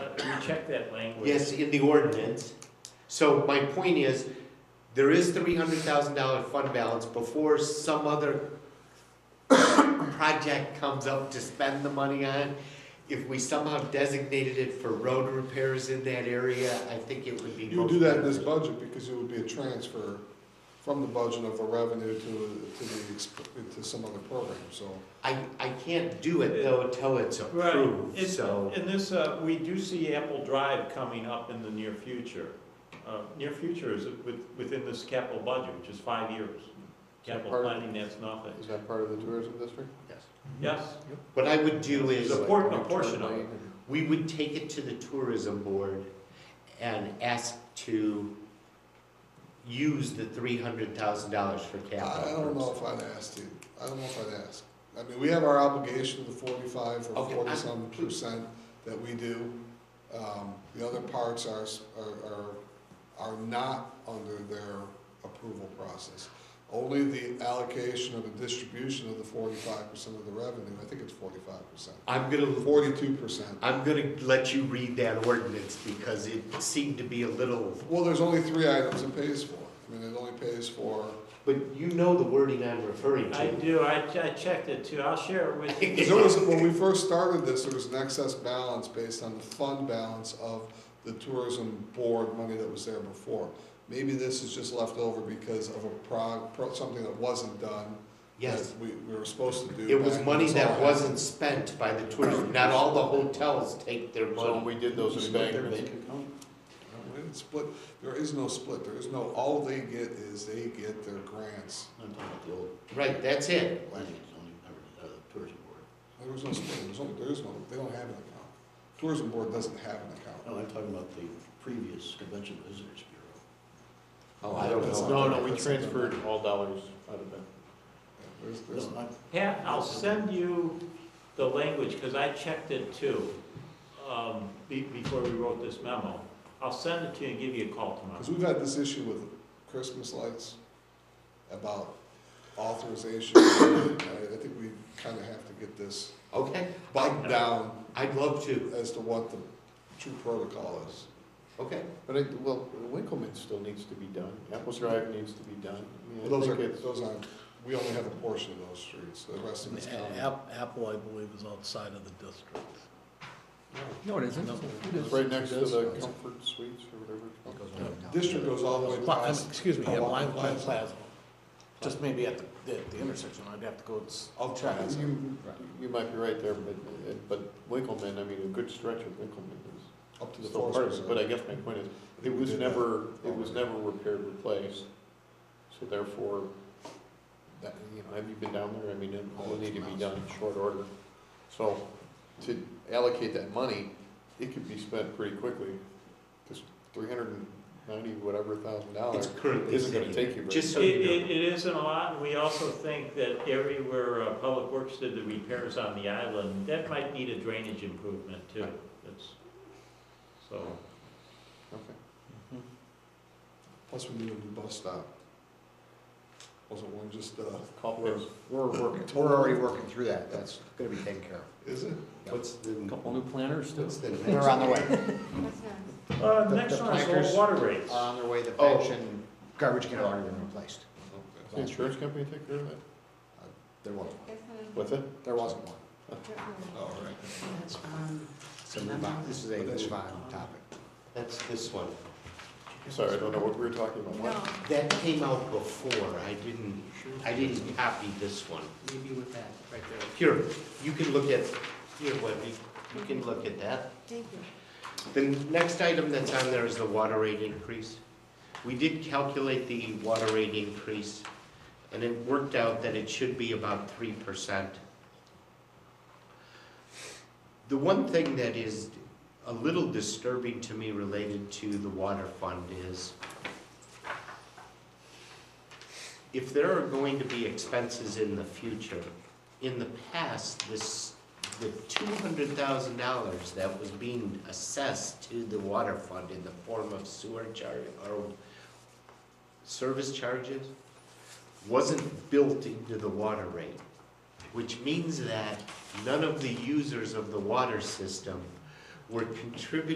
check that language. Yes, in the ordinance. So my point is, there is three hundred thousand dollar fund balance before some other project comes up to spend the money on. If we somehow designated it for road repairs in that area, I think it would be. You would most do that in this beneficial. budget because it would be a transfer from the budget of the revenue to, to the, exp- to some other program, so. I, I can't do it though until it's Right, approved, It's- so. And this, uh, we do see Apple Drive coming up in the near future. Uh, Near future is with- within this capital budget, which is five years. Capital Part of- planning, that's nothing. Is that part of the tourism district? Yes. Yes, What I would do is. There's a por- a portion of it. we would take it to the tourism board and ask to use the three hundred thousand dollars for I I don't capital know purposes. if I'd ask you, I don't know if I'd ask. I mean, we have our obligation of the forty-five or Okay, I- forty-some percent that we do. Um, the other parts are, s- are, are, are not under their approval process. Only the allocation of the distribution of the forty-five percent of the revenue, I think it's forty-five percent, I'm gonna, forty-two percent. I'm gonna let you read that ordinance because it seemed to be a little, Well, there's only three items it pays for. I mean, it only pays for, but you know the wording I'm referring I to. do, I I checked it too, I'll share it with you. 'Cause there was, when we first started this, there was an excess balance based on the fund balance of the tourism board money that was there before. Maybe this is just left over because of a prog, pro- something that wasn't done. Yes, that We, we were supposed to do. it was back when money this all that happened. wasn't spent by the tourism, not all the hotels take their So when money. we did those embankments, We didn't split, there is no split, there is no, all they get is they get their grants. I'm talking about the old Right, that's it. planning zoning, or the tourism board. There was no split, there's only, there is no, they don't have an account. Tourism board doesn't have an account. No, I'm talking about the previous convention visitors bureau. Oh, I don't That's know. not- No, no, we that's not- transferred all dollars out of that. Yeah, There's, there's. No, I- Pat, I'll send you the language, because I checked it too, um, be- before we wrote this memo. I'll send it to you and give you a call tomorrow. Because we've had this issue with Christmas lights about authorization. I I think we kind of have to get this Okay, bogged down I'd love to, as to what the true protocol is. okay. But I, well, Winkleman still needs to be done, Apple Drive needs to be done. I mean, I Well, Those are, think it's- those aren't, we only have a portion of those streets, the rest of it's county. Apple, I believe, is outside of the district. No, it isn't. It's right next to the Comfort Suites or whatever. it's called. District goes all the way Pla- um, past. Excuse me, yeah, Hawaiian Lime Lime Plaza. Plaza. Just maybe at the, at the intersection, I'd have to go, s- I'll try it. You, you might be right there, but, but Winkleman, I mean, a good stretch of Winkleman is. Up to the It's still part of forest. it, but I guess my point is, it was Yeah. never, it was never repaired, replaced, so therefore, that, you know, have you been down there? I mean, it will need to be done in short order. So, to allocate that money, it could be spent pretty quickly, because three hundred and ninety, whatever thousand It's dollars currently isn't gonna sitting. take you very. Just It, so you know. it, it isn't a lot, and we also think that area where uh, Public Works did the repairs on the island, that might need a drainage improvement too. That's, so, Okay. Plus, we need a new bus stop. Wasn't one just, uh, Call for it. We're working, we're already working through that, that's gonna be taken care of. is it? What's the, Couple new planners what's the next? They're on their way, uh, The- next the one is placards the water rates. are Uh, on their way, the Oh. bench and garbage can have already been replaced. The insurance company take care of that? There wasn't, one. What's that? there wasn't one. Oh, All right. So move on, this is a move on topic. That's this one. Sorry, I don't know what we were talking about. No, That came out before, I didn't, I didn't copy this one. Maybe with that, right there. Here, you can look at, here, Wendy, you can look at that. thank you. The next item that's on there is the water rate increase. We did calculate the water rate increase, and it worked out that it should be about three percent. The one thing that is a little disturbing to me related to the water fund is if there are going to be expenses in the future, in the past, this, the two hundred thousand dollars that was being assessed to the water fund in the form of sewer charge, or service charges, wasn't built into the water rate, which means that none of the users of the water system were contributing